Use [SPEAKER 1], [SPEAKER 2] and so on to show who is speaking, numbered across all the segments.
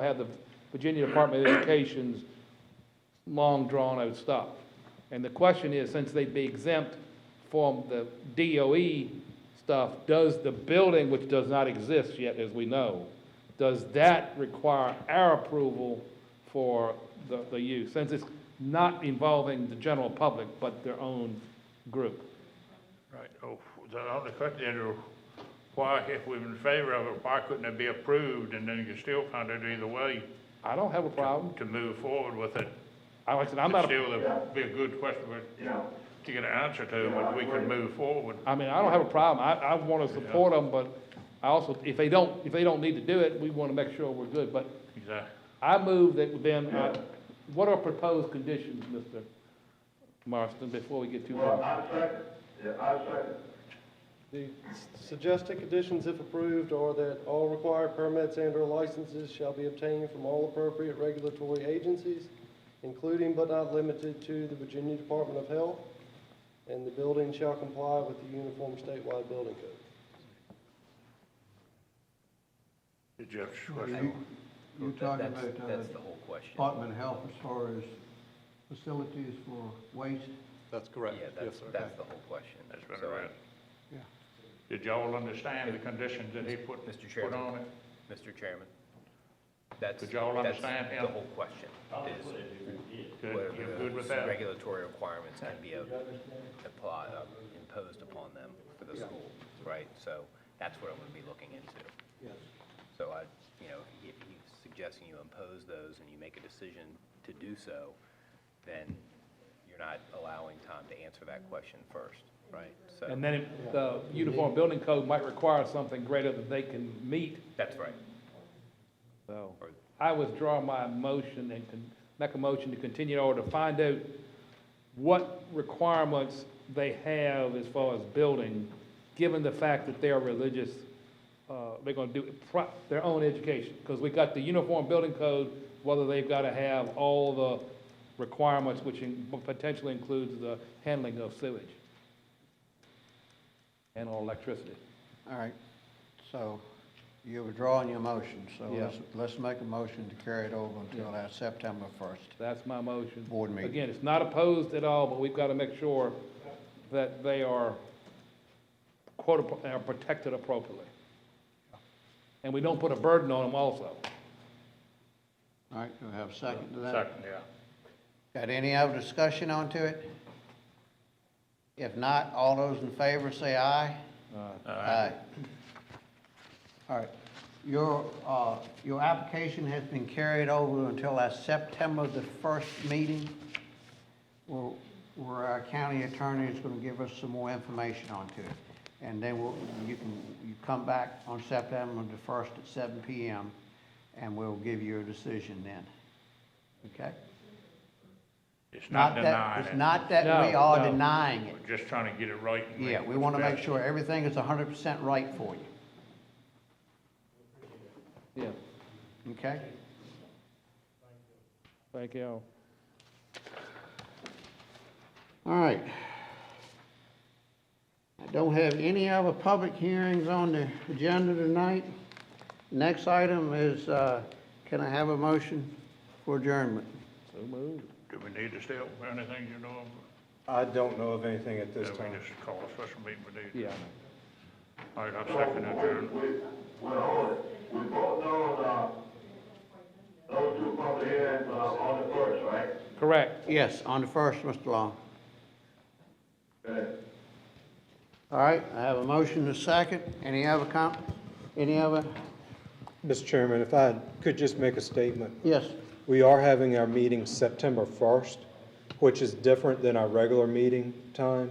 [SPEAKER 1] I had the Virginia Department of Education's long drawn-out stuff. And the question is, since they'd be exempt from the DOE stuff, does the building, which does not exist yet, as we know, does that require our approval for the, the use? Since it's not involving the general public, but their own group.
[SPEAKER 2] Right, oh, the other question, Andrew, why, if we're in favor of it, why couldn't it be approved and then you still find it either way
[SPEAKER 1] I don't have a problem.
[SPEAKER 2] to move forward with it?
[SPEAKER 1] I like I said, I'm not, a-
[SPEAKER 2] Still, it would be a good question for- to get an answer to, but we could move forward.
[SPEAKER 1] I mean, I don't have a problem. I, I want to support them, but I also, if they don't, if they don't need to do it, we want to make sure we're good. But
[SPEAKER 2] Exactly.
[SPEAKER 1] I move that then, uh, what are proposed conditions, Mr. Marston, before we get too far?
[SPEAKER 3] I second, yeah, I second.
[SPEAKER 4] The suggested conditions, if approved, are that all required permits and/or licenses shall be obtained from all appropriate regulatory agencies, including but not limited to the Virginia Department of Health, and the building shall comply with the uniform statewide building code.
[SPEAKER 2] It's Jeff's
[SPEAKER 3] You-
[SPEAKER 2] question.
[SPEAKER 3] You're talking
[SPEAKER 5] That's-
[SPEAKER 3] about uh,
[SPEAKER 5] That's the whole question.
[SPEAKER 3] Department of Health as far as facilities for waste?
[SPEAKER 6] That's correct.
[SPEAKER 5] Yeah,
[SPEAKER 6] Yes,
[SPEAKER 5] that's,
[SPEAKER 6] sir.
[SPEAKER 5] that's the whole question.
[SPEAKER 2] That's right,
[SPEAKER 5] So,
[SPEAKER 2] right.
[SPEAKER 3] Yeah.
[SPEAKER 2] Did y'all understand the conditions that he put,
[SPEAKER 5] Mr.
[SPEAKER 2] put
[SPEAKER 5] Chairman.
[SPEAKER 2] on it?
[SPEAKER 5] Mr. Chairman, that's.
[SPEAKER 2] Did y'all
[SPEAKER 5] that's
[SPEAKER 2] understand him?
[SPEAKER 5] The whole question is
[SPEAKER 2] Good, you're
[SPEAKER 5] whether
[SPEAKER 2] good with
[SPEAKER 5] the
[SPEAKER 2] that?
[SPEAKER 5] regulatory requirements can be uh, apply, uh, imposed upon them for the school, right? So that's what I'm gonna be looking into.
[SPEAKER 3] Yes.
[SPEAKER 5] So I, you know, if he's suggesting you impose those and you make a decision to do so, then you're not allowing time to answer that question first, right? So,
[SPEAKER 1] And then if the Uniform Building Code might require something greater than they can meet,
[SPEAKER 5] that's right.
[SPEAKER 1] so.
[SPEAKER 5] Or-
[SPEAKER 1] I withdraw my motion and con- make a motion to continue or to find out what requirements they have as far as building, given the fact that they are religious, uh, they're gonna do pro- their own education. Because we got the uniform building code, whether they've gotta have all the requirements, which in- potentially includes the handling of sewage and or electricity.
[SPEAKER 7] All right, so you're withdrawing your motion, so let's, let's make a motion to carry it over until that September first.
[SPEAKER 1] That's my motion.
[SPEAKER 7] Board meeting.
[SPEAKER 1] Again, it's not opposed at all, but we've got to make sure that they are quote, appro- are protected appropriately. And we don't put a burden on them also.
[SPEAKER 7] All right, do we have a second to that?
[SPEAKER 2] Second, yeah.
[SPEAKER 7] Got any other discussion onto it? If not, all those in favor say aye. Aye. All right, your, uh, your application has been carried over until our September the first meeting, where, where our county attorney is gonna give us some more information onto it. And then we'll, you can, you come back on September the first at seven PM, and we'll give you a decision then. Okay?
[SPEAKER 2] It's not
[SPEAKER 7] that-
[SPEAKER 2] denying
[SPEAKER 7] It's
[SPEAKER 2] it.
[SPEAKER 7] not that we
[SPEAKER 1] No,
[SPEAKER 7] are
[SPEAKER 1] no.
[SPEAKER 7] denying it.
[SPEAKER 2] We're just trying to get it right. and
[SPEAKER 7] Yeah,
[SPEAKER 2] make
[SPEAKER 7] we
[SPEAKER 2] it
[SPEAKER 7] want to
[SPEAKER 2] better.
[SPEAKER 7] make sure everything is hundred percent right for you,
[SPEAKER 1] Yeah,
[SPEAKER 7] okay?
[SPEAKER 1] thank you.
[SPEAKER 7] All right. I don't have any other public hearings on the agenda tonight. Next item is, uh, can I have a motion for adjournment?
[SPEAKER 1] So moved.
[SPEAKER 2] Do we need to still, anything you know?
[SPEAKER 4] I don't know of anything at
[SPEAKER 2] of? Do we just call a special meeting we need?
[SPEAKER 1] Yeah.
[SPEAKER 2] All right, I'll second adjourn.
[SPEAKER 3] We both know, uh, those two public hearings, uh, on the first, right?
[SPEAKER 1] Correct.
[SPEAKER 7] Yes, on the first, Mr. Long.
[SPEAKER 3] Okay.
[SPEAKER 7] All right, I have a motion to second. Any other com, any other?
[SPEAKER 8] Mr. Chairman, if I could just make a statement.
[SPEAKER 7] Yes,
[SPEAKER 8] We are having our meeting September 1st, which is different than our regular meeting time.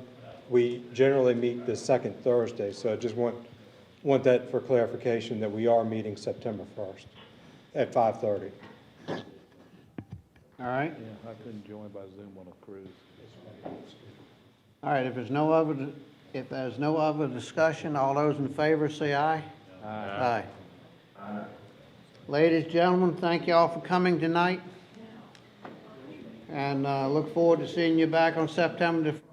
[SPEAKER 8] We generally meet the second Thursday, so I just want, want that for clarification, that we are meeting September 1st at 5:30.
[SPEAKER 7] all right.
[SPEAKER 1] Yeah, I couldn't join by Zoom on a cruise.
[SPEAKER 7] All right, if there's no other, if there's no other discussion, all those in favor say aye. Aye. Ladies, gentlemen, thank you all for coming tonight. And, uh, look forward to seeing you back on September the